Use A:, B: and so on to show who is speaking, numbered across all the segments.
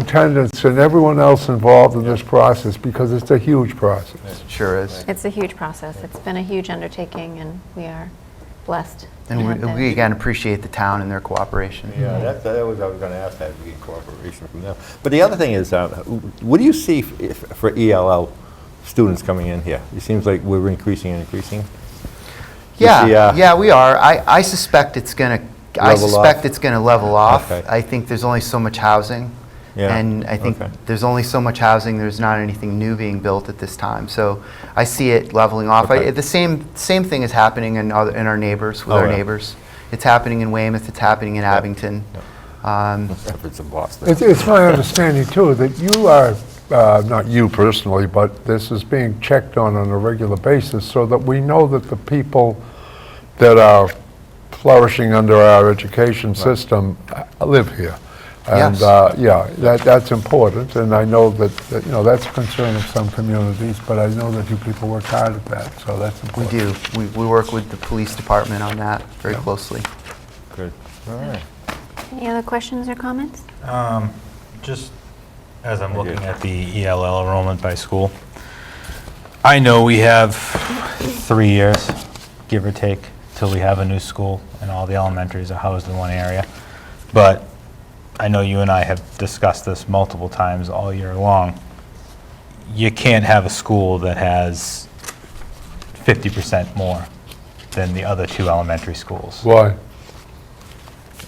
A: superintendents and everyone else involved in this process, because it's a huge process.
B: Sure is.
C: It's a huge process. It's been a huge undertaking, and we are blessed. to
B: And
C: have
B: we-
C: been.
B: we, again, appreciate the town and their cooperation.
D: Yeah, that, that was, I was gonna ask that, we get cooperation from them. But the other thing is, um, what do you see f- if- for ELL students coming in here? It seems like we're increasing and increasing.
B: Yeah,
D: the, uh,
B: yeah, we are. I, I suspect it's going to, I
D: Level off?
B: suspect it's going to level off.
D: Okay.
B: I think there's only so much housing.
D: Yeah,
B: And I think
D: okay.
B: there's only so much housing, there's not anything new being built at this time. So I see it leveling off. I-
D: Okay.
B: The same, same thing is happening in other, in our neighbors, with
D: Oh,
B: our
D: yeah.
B: neighbors. It's happening in Weymouth, it's happening in Abington. Um,
D: Efforts in Boston.
A: It's- It's my understanding, too, that you are, uh, not you personally, but this is being checked on on a regular basis, so that we know that the people that are flourishing under our education system uh, live here. And,
B: Yes.
A: uh, yeah, that that's important, and I know that, that, you know, that's a concern of some communities, but I know that you people work hard at that, so that's
B: We
A: important.
B: do. We, we work with the police department on that very closely.
D: Good. All right.
C: Any other questions or comments?
E: Um, Just as I'm
D: Thank you.
E: looking at the ELL enrollment by school, I know we have three years, give or take, till we have a new school and all the elementaries are housed in one area. But I know you and I have discussed this multiple times all year long. You can't have a school that has 50% more than the other two elementary schools.
A: Why?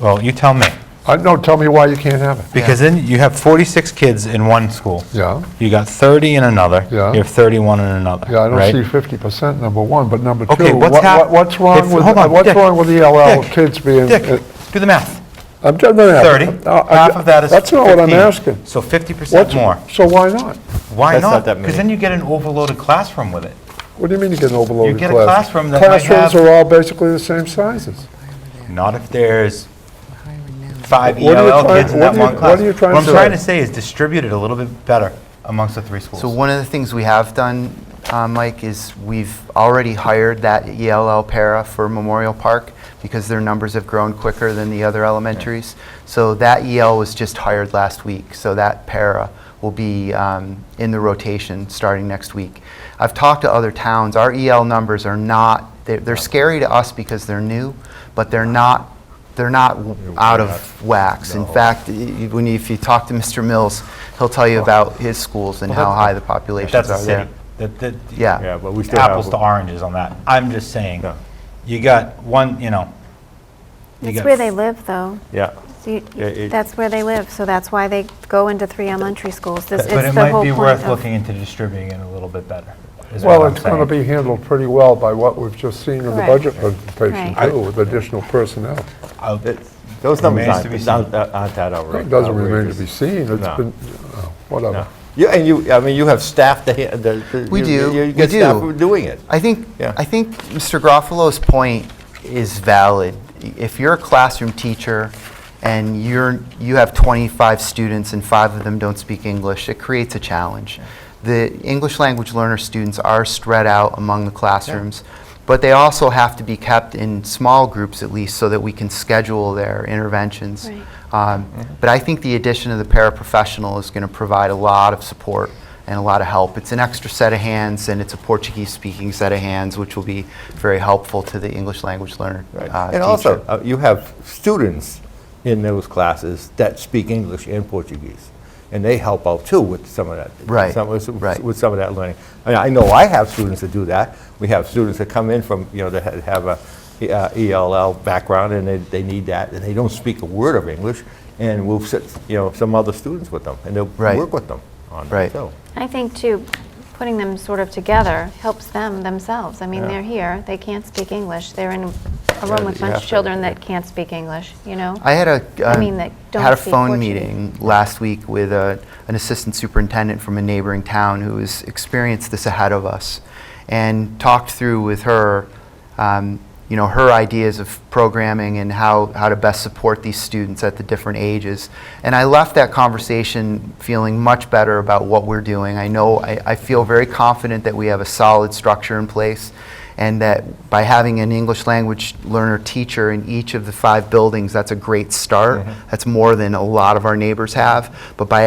E: Well, you tell me.
A: Uh, No, tell me why you can't have it.
E: Because then you have 46 kids in one school.
A: Yeah,
E: You got 30 in another.
A: Yeah.
E: You have 31 in another,
A: yeah, I
E: right?
A: don't see 50%, number one, but number two,
E: Okay, what's
A: what-
E: hap-
A: what- what's wrong
E: If-
A: with,
E: hold on,
A: what's
E: Dick,
A: wrong with ELL
E: Dick,
A: kids being? uh,
E: Dick, do the math.
A: I'm telling you.
E: 30,
A: Uh, I-
E: half of that is 15.
A: That's not what I'm asking.
E: So 50%
A: What's
E: more.
A: So why not?
E: Why
D: That's
E: not?
D: not that many.
E: Because then you get an overloaded classroom with it.
A: What do you mean you get an overloaded
E: get
A: class?
E: a classroom that might
A: Classrooms
E: have-
A: are all basically the same sizes.
E: Not if there's five
A: What are you
E: ELL
A: trying-
E: kids in
A: what
E: that
A: are you-
E: one
A: what
E: class.
A: are you trying to
E: What I'm trying
A: say?
E: to say is distribute it a little bit better amongst the three schools.
B: So one of the things we have done, uh, Mike, is we've already hired that ELL para for Memorial Park because their numbers have grown quicker than the other elementaries. So that EL was just hired last week, so that para will be um, in the rotation starting next week. I've talked to other towns, our EL numbers are not, they're- they're scary to us because they're new, but they're not, they're not out of wax. In fact, y- y- when you, if you talk to Mr. Mills, he'll tell you about his schools and
E: Well,
B: how
E: that-
B: high the populations
E: That's a
B: are there.
E: city. That- that-
B: Yeah.
D: Yeah, but we still have.
E: Uh, Apples to oranges on that. I'm just saying,
D: No.
E: you got one, you know. you
C: That's
E: got
C: where they live, though.
D: Yeah.
C: So you-
D: Yeah, it-
C: That's where they live, so that's why they go into three elementary schools. This-
E: But
C: it's
E: it
C: the
E: might
C: whole
E: be
C: point
E: worth
C: of-
E: looking into distributing it a little bit better, is what
A: Well,
E: I'm
A: it's going to
E: saying.
A: be handled pretty well by what we've just seen in the
C: Correct.
A: budget presentation,
C: Right.
A: too, with additional personnel.
E: I'll-
D: It's- Those numbers
E: Remains to be
D: aren't,
E: seen.
D: aren't aren't that outra- outrageous.
A: It doesn't remain to be seen. It's
D: No.
A: been, oh, whatever.
D: No. You, and you, I mean, you have staff that, ha- the- the-
B: We
D: you-
B: do,
D: you-
B: we
D: You get staff
B: do.
D: who are doing it.
B: I think,
D: Yeah.
B: I think Mr. Garofalo's point is valid. If you're a classroom teacher and you're, you have 25 students and five of them don't speak English, it creates a challenge. The English language learner students are spread out among the classrooms, but they also have to be kept in small groups at least so that we can schedule their interventions.
C: Right.
B: Um, But I think the addition of the paraprofessional is going to provide a lot of support and a lot of help. It's an extra set of hands, and it's a Portuguese-speaking set of hands, which will be very helpful to the English language learner uh,
D: Right.
B: teacher.
D: And also, uh, you have students in those classes that speak English and Portuguese, and they help out too with some of that.
B: Right,
D: some- with-
B: right.
D: With some of that learning. I mean, I know I have students that do that. We have students that come in from, you know, that ha- have a uh, ELL background, and they, they need that, and they don't speak a word of English, and we'll sit, you know, some other students with them, and they'll
B: Right.
D: work with them on
B: Right.
D: that too.
C: I think, too, putting them sort of together helps them themselves. I mean,
D: Yeah.
C: they're here, they can't speak English, they're in a
D: Yeah,
C: room with
D: you
C: a bunch
D: have
C: of
D: to-
C: children that can't speak English, you know?
B: I had a,
C: I
B: uh,
C: mean, that don't
B: had a
C: speak
B: phone
C: Portuguese.
B: meeting last week with a, an assistant superintendent from a neighboring town who has experienced this ahead of us, and talked through with her, um, you know, her ideas of programming and how, how to best support these students at the different ages. And I left that conversation feeling much better about what we're doing. I know I, I feel very confident that we have a solid structure in place and that by having an English language learner teacher in each of the five buildings, that's a great start. That's more than a lot of our neighbors have. But by